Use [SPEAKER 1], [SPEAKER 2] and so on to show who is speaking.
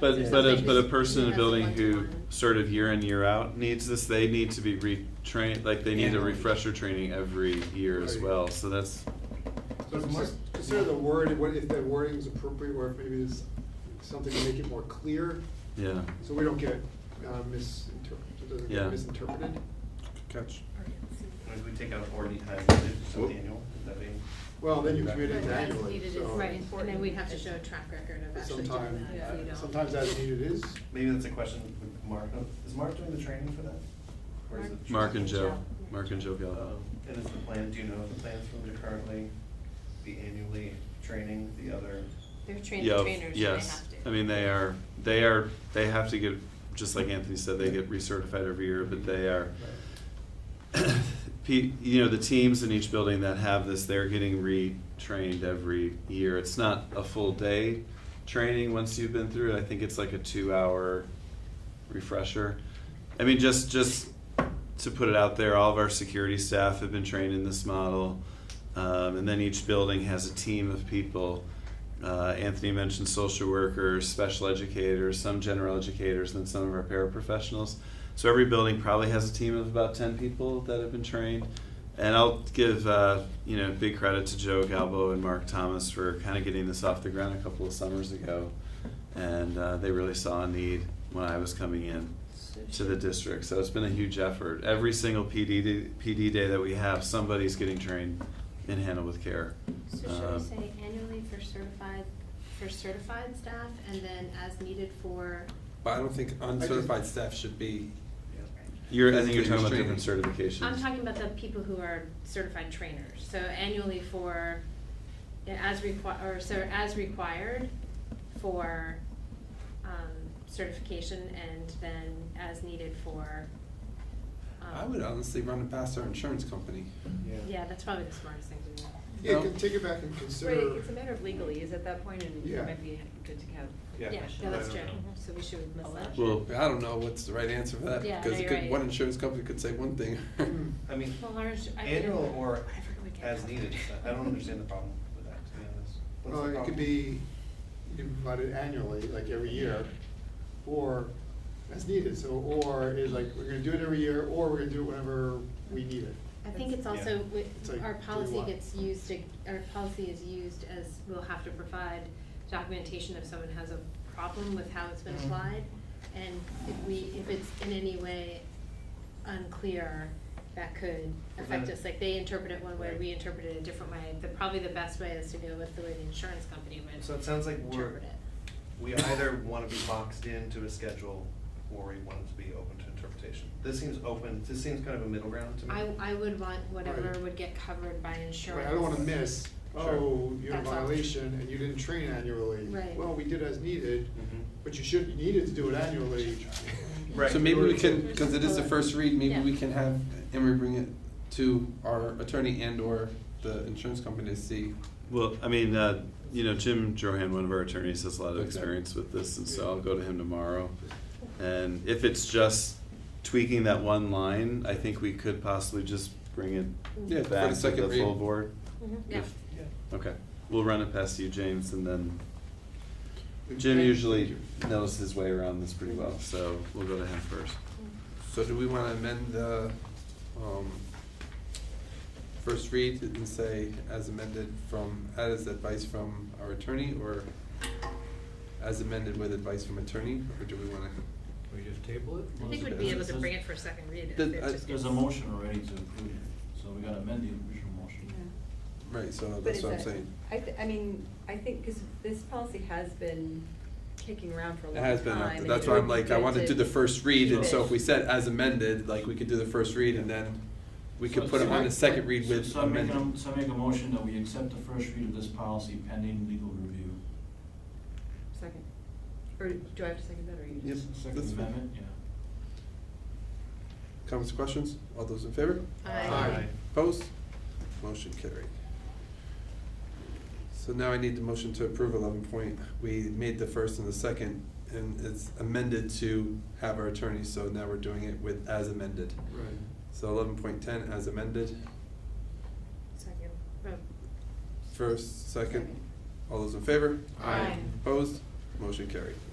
[SPEAKER 1] But,
[SPEAKER 2] Yeah.
[SPEAKER 1] but a, but a
[SPEAKER 2] Just-
[SPEAKER 1] person in a
[SPEAKER 2] that's
[SPEAKER 1] building
[SPEAKER 2] one to
[SPEAKER 1] who
[SPEAKER 2] one.
[SPEAKER 1] sort of year in, year out needs this, they need to be retrained, like they need a
[SPEAKER 3] Yeah.
[SPEAKER 1] refresher training every year as
[SPEAKER 4] Right.
[SPEAKER 1] well, so that's,
[SPEAKER 4] So just consider the word, what if the wording is appropriate, or if maybe there's something to make it more clear,
[SPEAKER 1] yeah.
[SPEAKER 4] so we don't get uh, misinterpreted, it doesn't
[SPEAKER 1] Yeah.
[SPEAKER 4] get misinterpreted.
[SPEAKER 5] Catch.
[SPEAKER 6] If we take out or any time, is it
[SPEAKER 5] Whoop.
[SPEAKER 6] annual, Would that be?
[SPEAKER 4] Well, then you commit
[SPEAKER 2] But
[SPEAKER 4] it
[SPEAKER 2] as
[SPEAKER 4] annually,
[SPEAKER 2] needed is
[SPEAKER 4] so
[SPEAKER 2] Right, and then we'd have to show a track record of actually doing
[SPEAKER 4] sometime,
[SPEAKER 2] uh, that if we don't.
[SPEAKER 4] sometimes as needed is.
[SPEAKER 6] Maybe that's a question with Mark, is Mark doing the training for that? Or is it just-
[SPEAKER 1] Mark and Joe, Mark and Joe Gallo.
[SPEAKER 6] Um, And is the plan, do you know if the plans from to currently be annually training the other?
[SPEAKER 2] They're trained
[SPEAKER 1] Yeah,
[SPEAKER 2] trainers, so they have to.
[SPEAKER 1] yes, I mean, they are, they are, they have to get, just like Anthony said, they get recertified every year, but they are, pe- you know, the teams in each building that have this, they're getting retrained every year. It's not a full day training once you've been through it. I think it's like a two-hour refresher. I mean, just just to put it out there, all of our security staff have been trained in this model, um, and then each building has a team of people. Uh, Anthony mentioned social workers, special educators, some general educators, and some of our paraprofessionals. So every building probably has a team of about 10 people that have been trained. And I'll give uh, you know big credit to Joe Galbo and Mark Thomas for kind of getting this off the ground a couple of summers ago, and uh, they really saw a need when I was coming in to the district. So it's been a huge effort. Every single PD d- PD day that we have, somebody's getting trained in handle with care.
[SPEAKER 2] So should we
[SPEAKER 1] Um,
[SPEAKER 2] say annually for certified, for certified staff, and then as needed for?
[SPEAKER 5] But I don't think uncertified staff should be,
[SPEAKER 1] You're, I think you're talking about
[SPEAKER 5] Training.
[SPEAKER 1] different certifications.
[SPEAKER 2] I'm talking about the people who are certified trainers, so annually for, yeah, as requi- or so as required for, um, certification, and then as needed for, um.
[SPEAKER 5] I would honestly run it past our insurance company.
[SPEAKER 2] Yeah, that's probably the smartest thing to do.
[SPEAKER 4] Yeah,
[SPEAKER 5] No.
[SPEAKER 4] can take it back and
[SPEAKER 7] Right,
[SPEAKER 4] consider.
[SPEAKER 7] it's a matter of legalese at that point, and
[SPEAKER 4] Yeah.
[SPEAKER 7] it might be good to have.
[SPEAKER 6] Yeah.
[SPEAKER 2] Yeah,
[SPEAKER 7] discussion.
[SPEAKER 2] no, that's true,
[SPEAKER 6] I don't know.
[SPEAKER 2] so we should miss
[SPEAKER 7] Well,
[SPEAKER 2] that.
[SPEAKER 1] Well,
[SPEAKER 5] I don't know what's the right answer for that,
[SPEAKER 2] Yeah, no,
[SPEAKER 5] because it
[SPEAKER 2] you're
[SPEAKER 5] could-
[SPEAKER 2] right.
[SPEAKER 5] one insurance company could say one thing.
[SPEAKER 4] Hmm.
[SPEAKER 6] I mean,
[SPEAKER 2] Well, ours- I think-
[SPEAKER 6] annual or
[SPEAKER 2] I forget we get
[SPEAKER 6] as
[SPEAKER 2] that.
[SPEAKER 6] needed, I don't understand the problem with that, to be honest. What's
[SPEAKER 4] Well, Uh,
[SPEAKER 6] the
[SPEAKER 4] it
[SPEAKER 6] problem?
[SPEAKER 4] could be, you can provide it annually, like every year, or as needed, so, or is like, we're gonna do it every year, or we're gonna do it whenever we need it.
[SPEAKER 2] I think it's
[SPEAKER 6] Yeah.
[SPEAKER 2] also, wi-
[SPEAKER 4] It's like,
[SPEAKER 2] our
[SPEAKER 4] do you
[SPEAKER 2] policy
[SPEAKER 4] want-
[SPEAKER 2] gets used, to- our policy is used as, we'll have to provide documentation if someone has a problem with how it's been
[SPEAKER 4] Mm-hmm.
[SPEAKER 6] Mhm.
[SPEAKER 2] applied. And if we, if it's in any way unclear, that could affect
[SPEAKER 6] Prevent it.
[SPEAKER 2] us. Like, they interpret it one way,
[SPEAKER 6] Right.
[SPEAKER 2] we interpret it a different way. The, probably the best way is to go with the way the insurance company would
[SPEAKER 6] So it sounds like we're-
[SPEAKER 2] interpret it.
[SPEAKER 6] We either want to be boxed into a schedule, or we want it to be open to interpretation. This seems open, this seems kind of a middle ground to me.
[SPEAKER 2] I, I would want whatever
[SPEAKER 4] Right.
[SPEAKER 2] would get covered by insurance.
[SPEAKER 4] Right, I don't wanna miss,
[SPEAKER 6] Sure.
[SPEAKER 4] oh, you're in
[SPEAKER 2] That's all.
[SPEAKER 4] violation and you didn't train annually.
[SPEAKER 2] Right.
[SPEAKER 4] Well, we did as needed,
[SPEAKER 6] Mhm.
[SPEAKER 4] but you should, you needed to do it annually.
[SPEAKER 6] Right.
[SPEAKER 5] So maybe we can, because it is the
[SPEAKER 2] Or-
[SPEAKER 5] first read, maybe
[SPEAKER 2] Yeah.
[SPEAKER 5] we can have, and we bring it to our attorney and/or the insurance company to see.
[SPEAKER 1] Well, I mean, uh, you know, Jim Johan, one of our attorneys, has a lot of
[SPEAKER 5] Okay.
[SPEAKER 1] experience with this, and so I'll go to him tomorrow. And if it's just tweaking that one line, I think we could possibly just bring
[SPEAKER 5] Yeah, for
[SPEAKER 1] it
[SPEAKER 5] the
[SPEAKER 1] back to
[SPEAKER 5] second
[SPEAKER 1] the full
[SPEAKER 5] read.
[SPEAKER 1] board.
[SPEAKER 2] Mhm. Yeah.
[SPEAKER 1] If-
[SPEAKER 6] Yeah.
[SPEAKER 1] Okay, we'll run it past you, James, and then Jim
[SPEAKER 4] Okay.
[SPEAKER 1] usually knows his way around this pretty well, so we'll go to him first.
[SPEAKER 5] So do we want to amend the um, first read and say as amended from, as advice from our attorney, or as amended with advice from attorney, or do we want to?
[SPEAKER 8] We just table it?
[SPEAKER 2] I think we'd be able to bring it for a second read if
[SPEAKER 5] The- uh,
[SPEAKER 2] it
[SPEAKER 5] I-
[SPEAKER 2] just gets.
[SPEAKER 8] There's a motion already to approve it, so we gotta amend the original motion.
[SPEAKER 5] Right, so
[SPEAKER 7] But
[SPEAKER 5] that's
[SPEAKER 7] it's
[SPEAKER 5] what I'm
[SPEAKER 7] a-
[SPEAKER 5] saying.
[SPEAKER 7] I, th- I mean, I think, because this policy has been kicking around for a long
[SPEAKER 5] It
[SPEAKER 7] time.
[SPEAKER 5] has been, up-
[SPEAKER 7] and
[SPEAKER 5] that's
[SPEAKER 7] it
[SPEAKER 5] why
[SPEAKER 7] would
[SPEAKER 5] I'm
[SPEAKER 7] be
[SPEAKER 5] like, I
[SPEAKER 7] good
[SPEAKER 5] want to
[SPEAKER 7] to
[SPEAKER 5] do the first read,
[SPEAKER 7] keep
[SPEAKER 5] and so
[SPEAKER 7] it.
[SPEAKER 5] if we said as amended, like, we could do the first read and then we could
[SPEAKER 8] So-
[SPEAKER 5] put it
[SPEAKER 8] so-
[SPEAKER 5] on the second read
[SPEAKER 8] So-
[SPEAKER 5] with
[SPEAKER 8] So I make,
[SPEAKER 5] amended.
[SPEAKER 8] a- so I make a motion that we accept the first read of this policy pending legal review.
[SPEAKER 7] Second, or do I have to second that, or you
[SPEAKER 5] Yep.
[SPEAKER 7] just?
[SPEAKER 5] that's
[SPEAKER 8] Second
[SPEAKER 5] fine.
[SPEAKER 8] amendment, yeah.
[SPEAKER 5] Comments, questions? All those in favor?
[SPEAKER 2] Aye.
[SPEAKER 5] Opposed? Motion carried. So now I need the motion to approve eleven point. We made the first and the second, and it's amended to have our attorney, so now we're doing it with as amended.
[SPEAKER 4] Right.
[SPEAKER 5] So eleven point ten as amended,
[SPEAKER 2] Second.
[SPEAKER 5] first, second. All those in favor?
[SPEAKER 2] Aye.
[SPEAKER 5] Opposed? Motion carried.